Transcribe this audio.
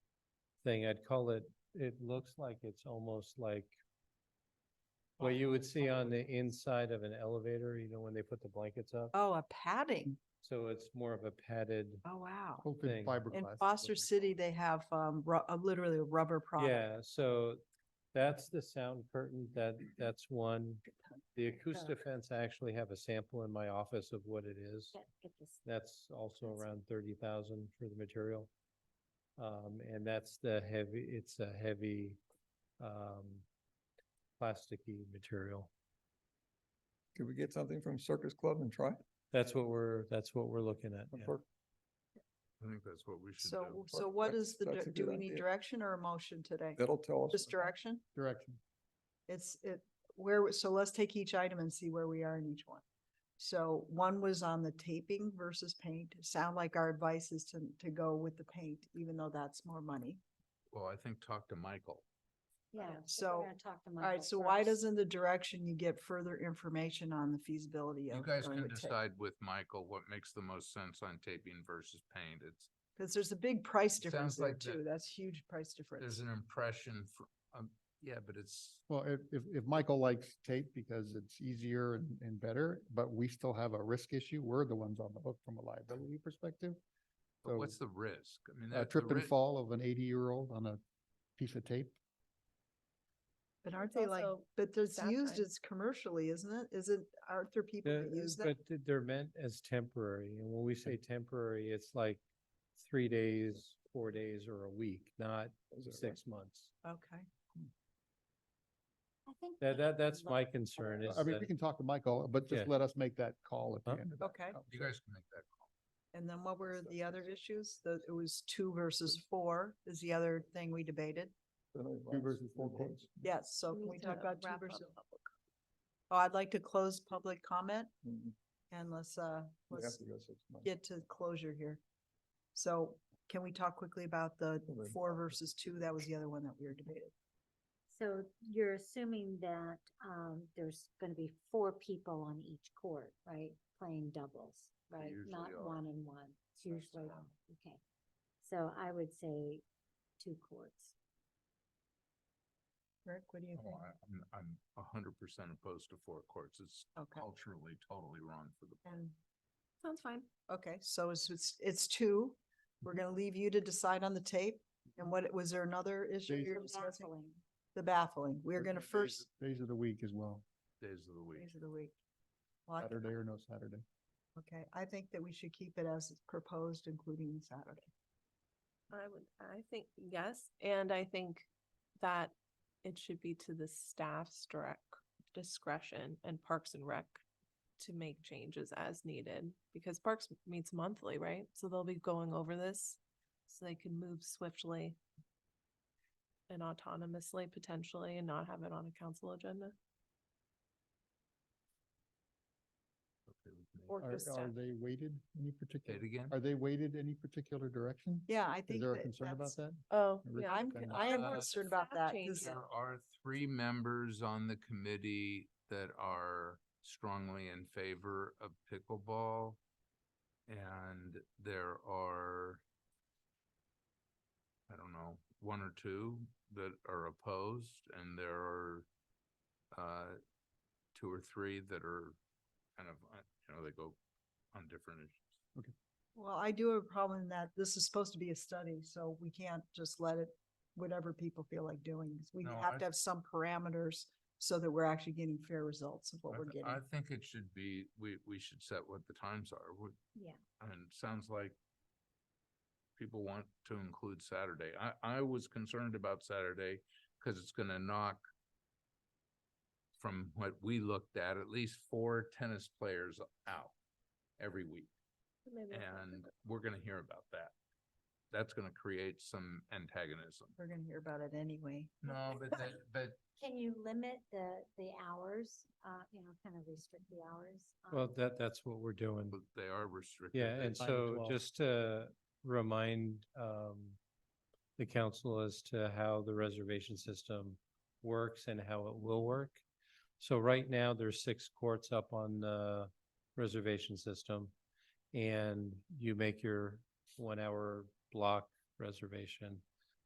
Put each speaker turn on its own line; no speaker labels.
thing, I'd call it, it looks like it's almost like what you would see on the inside of an elevator, you know, when they put the blankets up.
Oh, a padding.
So it's more of a padded,
Oh, wow.
thing.
Coated
In
fiberglass.
Foster City, they have um ru- uh, literally a rubber product.
yeah, so that's the sound curtain, that, that's one. The Acoustafence, I actually have a sample in my office of what it is. That's also around thirty thousand for the material. Um, and that's the heavy, it's a heavy, um, plasticky material.
Could we get something from Circus Club and try? it?
That's what we're, that's what we're looking at. yeah.
Or-
I think that's what we should do.
So, so what
That's-
is the,
that's
dir-
a
do
good
we need
idea.
direction or a motion today?
That'll tell us.
Just direction?
Direction.
It's, it, where, so let's take each item and see where we are in each one. So one was on the taping versus paint. Sound like our advice is to, to go with the paint, even though that's more money.
Well, I think talk to Michael.
Yeah.
Okay,
but we're
so-
gonna talk to
All
Michael
right, so why
first.
doesn't the direction you get further information on the feasibility of?
You guys
going
can
with tape?
decide with Michael what makes the most sense on taping versus paint. It's,
Cause there's a big price
It
difference
sounds
there
like the-
too. That's huge price
there's
difference.
an impression for, um, yeah, but it's,
Well, if, if, if Michael likes tape because it's easier and, and better, but we still have a risk issue, we're the ones on the hook from a liability perspective.
but what's the risk? I mean,
A
that. the
trip and
ri-
fall of an eighty-year-old on a piece of tape.
But aren't
It's
they like,
also
but it's used
downtime.
as commercially, isn't it? Isn't, aren't there people
They're-
that use that?
But th- they're meant as temporary, and when we say temporary, it's like three days, four days, or a week, not
Is that right?
six months.
Okay.
I think
That,
we
that, that's
lo-
my concern is
I mean,
that-
we can talk to Michael, but
Yeah.
just let us make that call at
Huh?
the end of that.
Okay.
You
conversation.
guys can make that call.
And then what were
Yes,
the
that's
other
it.
issues? The, it was two versus four is the other thing we debated.
Then I
Two
advise
versus four
people.
quotes.
Yes, so
we
can
need
we talk
to
about two
wrap up
versus?
public
Oh, I'd like to close public comment
Mhm.
and let's, uh,
We have
let's
to go six months.
get to closure here. So can we talk quickly about the
Well, then-
four versus two? That was the other one that we were debating.
So you're assuming that um there's gonna be four people on each court, right? Playing doubles, right?
usually
Not
are.
one and one. It's
That's
usually,
how-
okay. So I would say two courts.
Rick, what do you think?
Oh, I- I'm, I'm a hundred percent opposed to four courts. It's
Okay,
culturally totally wrong for the.
and,
Sounds fine.
okay, so it's, it's, it's two. We're
Mm-hmm.
gonna leave you to decide on the tape. And what, was there another issue
Days-
you were discussing? The baffling. We're gonna
Days of-
first.
Days of the week as well,
Days of the week.
Days of the week. Well, I-
Saturday or no Saturday.
Okay, I think that we should keep it as it's proposed, including Saturday.
I would, I think, yes, and I think that it should be to the staff's direct discretion and Parks and Rec to make changes as needed, because Parks meets monthly, right? So they'll be going over this, so they can move swiftly and autonomously potentially and not have it on a council agenda.
Okay with me.
Or
Are,
just
are
staff.
they weighted any
Say
particular,
it again?
are they weighted any particular direction?
Yeah, I
Is
think
there a
that
concern about
that's,
that?
Oh,
Rick,
yeah,
I'm,
Okay.
I am
Uh,
concerned about that
staff
'cause-
changes.
There are three members on the committee that are strongly in favor of pickleball. And there are, I don't know, one or two that are opposed and there are uh, two or three that are kind of, uh, you know, they go on different issues.
well, I do have a problem in that this is supposed to be a study, so we can't just let it, whatever people feel like doing. 'cause We
No,
have
I-
to have some parameters so that we're actually getting fair results of what
I
we're
th-
getting.
I think it should be, we, we should set what the times are. We-
Yeah.
And it sounds like people want to include Saturday. I, I was concerned about Saturday because it's gonna knock from what we looked at, at least four tennis players out every week.
Maybe I'll talk
And we're gonna hear about that. That's gonna create some antagonism.
We're gonna hear about it anyway.
No, but that, but
Can you limit the the hours, uh, you know, kind of restrict the hours?
Well,
um,
that, that's what we're doing.
but they are restricted.
Yeah, and
nine to
so
12.
just to remind um the council as to how the reservation system works and how it will work. So right now, there's six courts up on the reservation system. And you make your one hour block reservation